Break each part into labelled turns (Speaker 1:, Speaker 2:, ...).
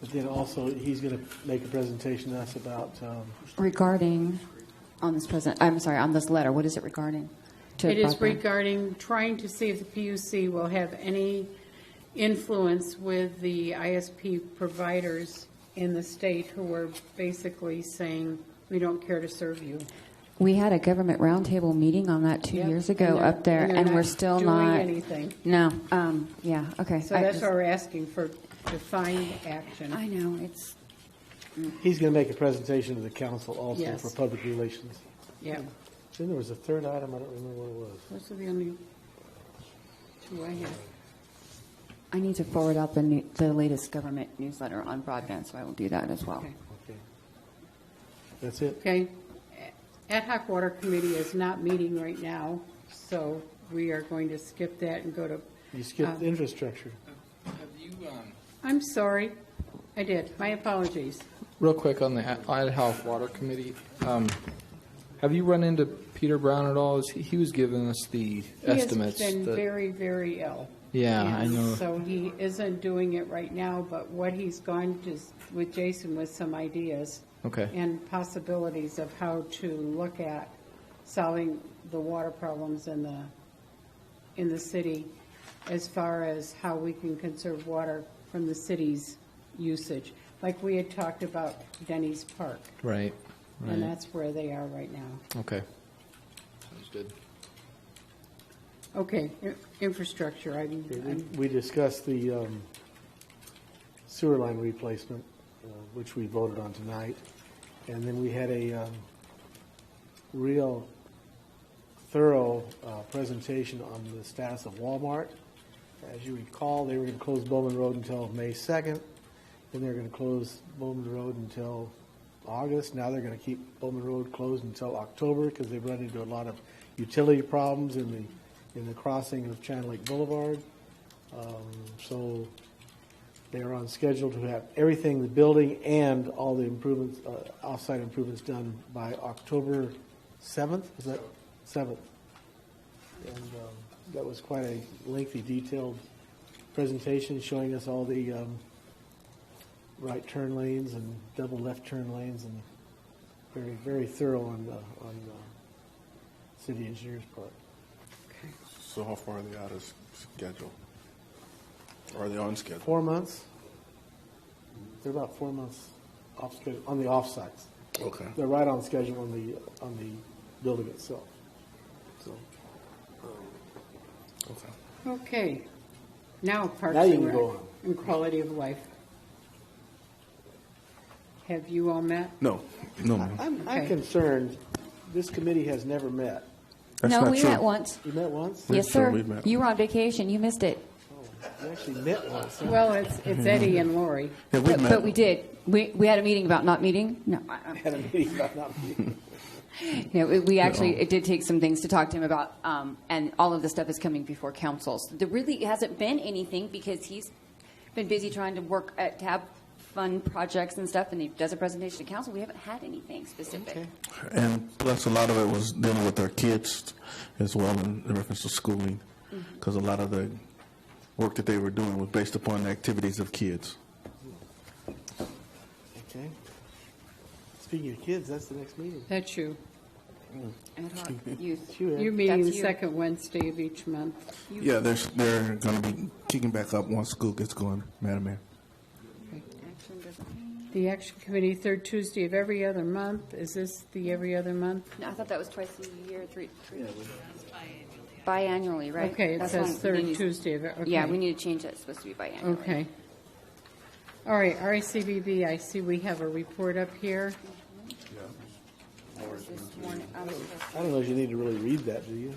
Speaker 1: But then also, he's going to make a presentation to us about, um,
Speaker 2: Regarding, on this present, I'm sorry, on this letter, what is it regarding? to
Speaker 3: It is
Speaker 2: Buckner?
Speaker 3: regarding trying to see if the PUC will have any influence with the ISP providers in the state who are basically saying, we don't care to serve you.
Speaker 2: We had a government roundtable meeting on that two
Speaker 3: Yep.
Speaker 2: years
Speaker 3: And
Speaker 2: ago
Speaker 3: they're-
Speaker 2: up there,
Speaker 3: and they're
Speaker 2: and
Speaker 3: not
Speaker 2: we're still
Speaker 3: doing
Speaker 2: not.
Speaker 3: anything.
Speaker 2: No, um, yeah, okay.
Speaker 3: So
Speaker 2: I
Speaker 3: that's
Speaker 2: just-
Speaker 3: why we're asking for defined action.
Speaker 2: I know, it's,
Speaker 1: he's going to make a presentation to the council also
Speaker 3: Yes.
Speaker 1: for public relations.
Speaker 3: Yeah,
Speaker 1: Then there was a third item, I don't remember what it was.
Speaker 3: those are the only two I have.
Speaker 2: I need to forward out the new, the latest government newsletter on broadband, so I will do that as well.
Speaker 3: Okay.
Speaker 1: Okay. That's it?
Speaker 3: Okay, ad hoc water committee is not meeting right now, so we are going to skip that and go to,
Speaker 1: You skipped infrastructure.
Speaker 4: Have you, um,
Speaker 3: I'm sorry, I did, my apologies.
Speaker 4: real quick on the Idaho Water Committee, um, have you run into Peter Brown at all? Is He he was giving us the estimates.
Speaker 3: He has been
Speaker 4: that-
Speaker 3: very, very ill.
Speaker 4: Yeah, I
Speaker 3: And
Speaker 4: know.
Speaker 3: So he isn't doing it right now, but what he's gone to, s- with Jason with some ideas.
Speaker 4: Okay.
Speaker 3: And possibilities of how to look at solving the water problems in the, in the city as far as how we can conserve water from the city's usage. Like we had talked about Denny's Park,
Speaker 4: Right,
Speaker 3: and
Speaker 4: right,
Speaker 3: that's where they are right now.
Speaker 4: okay. Sounds good.
Speaker 3: Okay, i- infrastructure, I'm, I'm
Speaker 1: We discussed the um, sewer line replacement, uh, which we voted on tonight. And then we had a um, real thorough uh, presentation on the status of Walmart. As you recall, they were going to close Bowman Road until May 2nd, then they're going to close Bowman Road until August. Now they're going to keep Bowman Road closed until October because they've run into a lot of utility problems in the, in the crossing of Channel Lake Boulevard. Um, So they are on schedule to have everything, the building and all the improvements, uh, off-site improvements done by October 7th, is that, 7th? And um, that was quite a lengthy, detailed presentation showing us all the um, right turn lanes and double left turn lanes and very, very thorough on, the- on the city engineer's part.
Speaker 5: So how far are they out of s- schedule? Or Are they on schedule?
Speaker 1: Four months? They're about four months off schedule, on the off-sites.
Speaker 5: Okay.
Speaker 1: They're right on schedule on the, on the building itself. So
Speaker 5: Okay.
Speaker 3: Okay, now Parks
Speaker 1: Now you
Speaker 3: and
Speaker 1: can go
Speaker 3: Rec
Speaker 1: on.
Speaker 3: and quality of life. Have you all met?
Speaker 5: No, no, ma'am.
Speaker 1: I'm, I'm
Speaker 3: Okay.
Speaker 1: concerned, this committee has never met.
Speaker 5: That's
Speaker 2: No,
Speaker 5: not
Speaker 2: we
Speaker 5: true.
Speaker 2: met once.
Speaker 1: You met once?
Speaker 2: Yes,
Speaker 5: sure
Speaker 2: sir.
Speaker 5: we've met.
Speaker 2: You were on vacation, you missed it.
Speaker 1: You actually met once. huh?
Speaker 3: Well, it's, it's Eddie and Lori.
Speaker 5: Yeah, we
Speaker 2: But
Speaker 5: met.
Speaker 2: but we did. We, we had a meeting about not meeting? No. I- I-
Speaker 1: Had a meeting about not meeting.
Speaker 2: No, it- we actually, it did take some things to talk to him about, um, and all of the stuff is coming before councils. There really hasn't been anything because he's been busy trying to work at tab fund projects and stuff, and he does a presentation to council. We haven't had anything specific.
Speaker 5: And plus, a lot of it was dealing with our kids as well in reference to schooling,
Speaker 2: Mm-hmm.
Speaker 5: because a lot of the work that they were doing was based upon the activities of kids.
Speaker 1: Okay. Speaking of kids, that's the next meeting.
Speaker 3: That's you.
Speaker 2: Ad hoc youth.
Speaker 1: Sure.
Speaker 3: You're meeting the
Speaker 2: That's you.
Speaker 3: second Wednesday of each month.
Speaker 5: Yeah, they're, s- they're going to be kicking back up once school gets going, Madam Mayor.
Speaker 2: Action doesn't-
Speaker 3: The action committee, third Tuesday of every other month. Is this the every other month?
Speaker 2: No, I thought that was twice a year, three, three. Biannually, right?
Speaker 3: Okay, it
Speaker 2: That's one
Speaker 3: says
Speaker 2: we
Speaker 3: third
Speaker 2: need-
Speaker 3: Tuesday of, e, okay.
Speaker 2: Yeah, we need to change that. It's supposed to be biannually.
Speaker 3: Okay. All right, RACBB, I see we have a report up here.
Speaker 2: This one, I was supposed to-
Speaker 1: I don't know if you need to really read that, do you?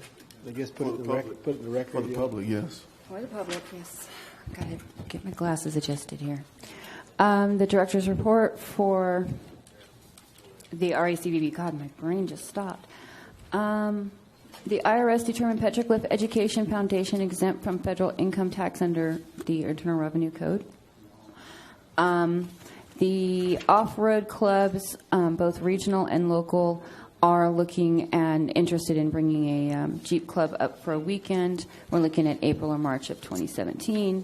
Speaker 1: I guess put it in the record, put it in the record.
Speaker 5: For the
Speaker 1: yeah.
Speaker 5: public, yes.
Speaker 2: For the public, yes. Got to get my glasses adjusted here. Um, the director's report for the RACVB, God, my brain just stopped. Um, the IRS determined Petroglyph Education Foundation exempt from federal income tax under the Internal Revenue Code. Um, the off-road clubs, um, both regional and local, are looking and interested in bringing a um, Jeep club up for a weekend. We're looking at April or March of 2017.